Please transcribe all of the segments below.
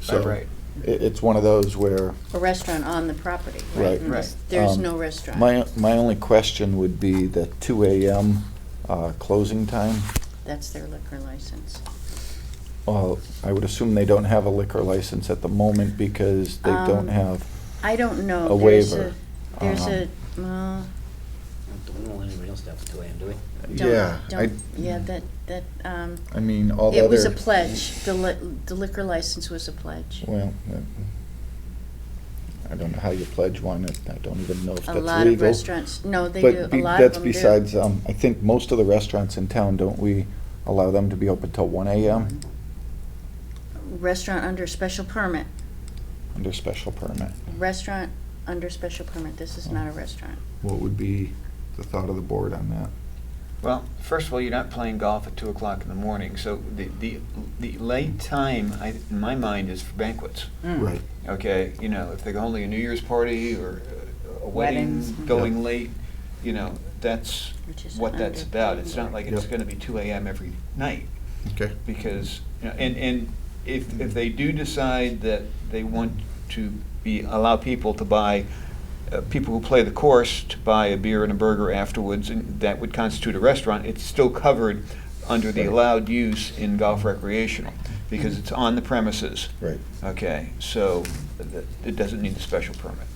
So Right. It, it's one of those where A restaurant on the property, Right. right? And Right. this- There's Um, no restaurant. my, my only question would be the two AM, uh, closing time. That's their liquor license. Well, I would assume they don't have a liquor license at the moment because they don't Um, have, I don't know. A There's waiver, There's um, a, well, Don't want anybody else to have to do AM, do we? Yeah, don't, I- don't, yeah, that, that, um, I mean, all the other. it was a pledge. The li, the liquor license was a pledge. Well, I- I don't know how you pledge one, I I don't even know if that's A legal. lot of restaurants, no, they do, But a be- lot of that's them do. besides, um, I think most of the restaurants in town, don't we allow them to be open till one AM Restaurant under special permit, under special permit? restaurant under special permit, this is not a restaurant. What would be the thought of the board on that? Well, first of all, you're not playing golf at two o'clock in the morning, so the, the, the late time, I, in my mind, is for banquets. Hmm. Right. Mm-hmm. Okay, you know, if they're only a New Year's party or uh, a wedding, Weddings. going Yep. late, you know, that's Which is what that's about. It's not like it's Yep. gonna be two AM every night, Okay. because, you know, and, and if, if they do decide that they want to be, allow people to buy, uh, people who play the course to buy a beer and a burger afterwards, and that would constitute a restaurant, it's still covered under the Right. allowed use in golf recreational, because it's on the premises. Right. Okay, so th- it doesn't need a special permit.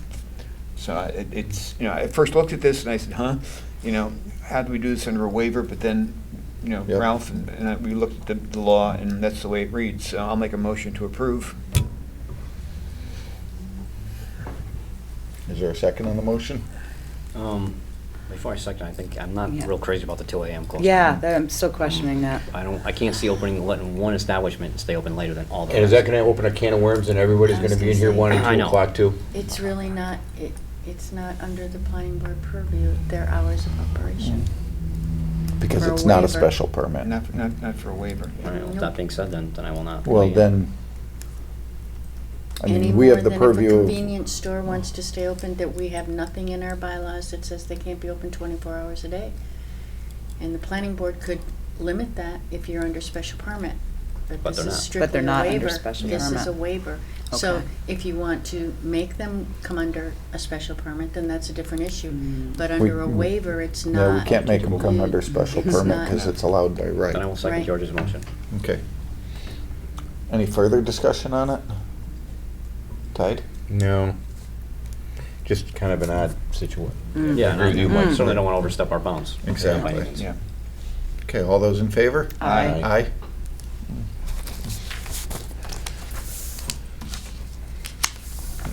So I- it- it's, you know, I first looked at this and I said, huh, you know, how do we do this under a waiver? But then, you know, Yep. Ralph and- and I- we looked at the- the law and that's the way it reads. So I'll make a motion to approve. Is there a second on the motion? Um, before I second, I think, I'm not Yeah. real crazy about the two AM closing. Yeah, that- I'm still questioning that. I don't, I can't see opening, letting one establishment stay open later than all the And is rest. that gonna open a can of worms and everybody's I was gonna be in gonna here say- one I and two know. o'clock too? It's really not, it, it's not under the planning board purview, their hours of operation. Because For a it's not a waiver. special permit. Not, not, not for a waiver. All right, well, with that being said, then, then I will not. Well, weigh in. then, I Any mean, we have more the than purview. If a of- convenience store wants to stay open, that we have nothing in our bylaws that says they can't be open twenty-four hours a day. And the planning board could limit that if you're under special permit, but But this is they're not. But strictly they're a not under waiver. special This is a permit. waiver. So Okay. if you want to make them come under a special permit, then that's a different issue. Mm. But We- under a we- waiver, it's not. No, we can't make them come under special It's permit not. because it's allowed by right. Then I will second Right. George's motion. Okay. Any further discussion on it? Tied? No. Just kind of an odd situation. Mm. Hmm. Yeah, and I Agree with you, Mike. I certainly don't want to overstep our bounds. by any Exactly. means. Yeah. Okay, all those in favor? Aye. Aye.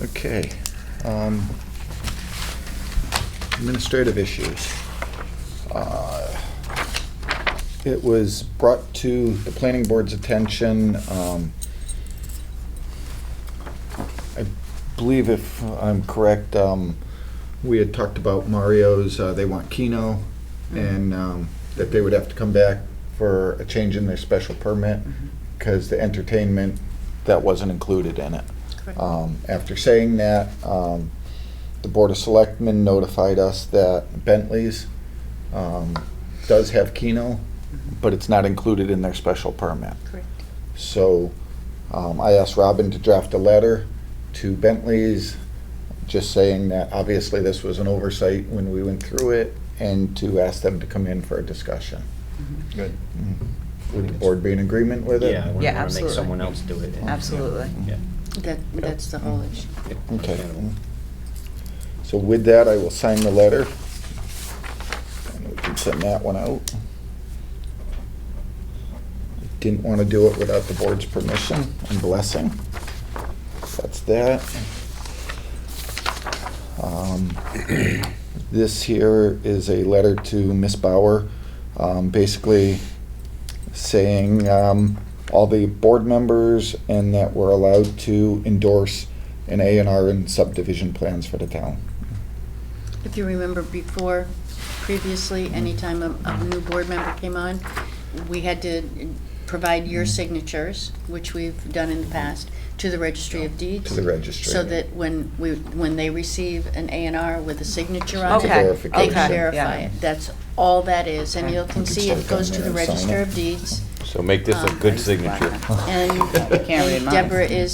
Okay. um, Administrative issues. Uh, It was brought to the planning board's attention, um, I believe if I'm correct, um, we had talked about Mario's, uh, they want Keno, and um, that they would have to come back for a change in their special permit, because the entertainment, that wasn't included in it. Correct. Um, After saying that, um, the Board of Selectmen notified us that Bentley's um, does have Keno, but it's not included in their special permit. Correct. So um, I asked Robin to draft a letter to Bentley's, just saying that obviously this was an oversight when we went through it, and to ask them to come in for a discussion. Good. Would the board be in agreement with it? Mm-hmm. Yeah, I Yeah, wouldn't want to make absolutely. someone else do it. Mm-hmm. Absolutely. Yeah. That, that's the whole issue. Yeah. Okay. Understandable. So with that, I will sign the letter. And we can send that one out. Didn't want to do it without the board's permission and blessing. That's that. Um, This here is a letter to Miss Bauer, um, basically saying um, all the board members and that we're allowed to endorse an A and R and subdivision plans for the town. If you remember before, previously, anytime a, a new board member came on, we had to provide Mm-hmm. your signatures, which we've done in the past, to the registry of deeds. To the registry. So that when we, when they receive an A and R with a signature on It's a Okay, it, they verification. can okay, verify yeah. it. That's all that is, and you You can can see stick it it goes on to the there and sign register it. of deeds. So make this a Um, good signature. And I can't read and mine. Deborah is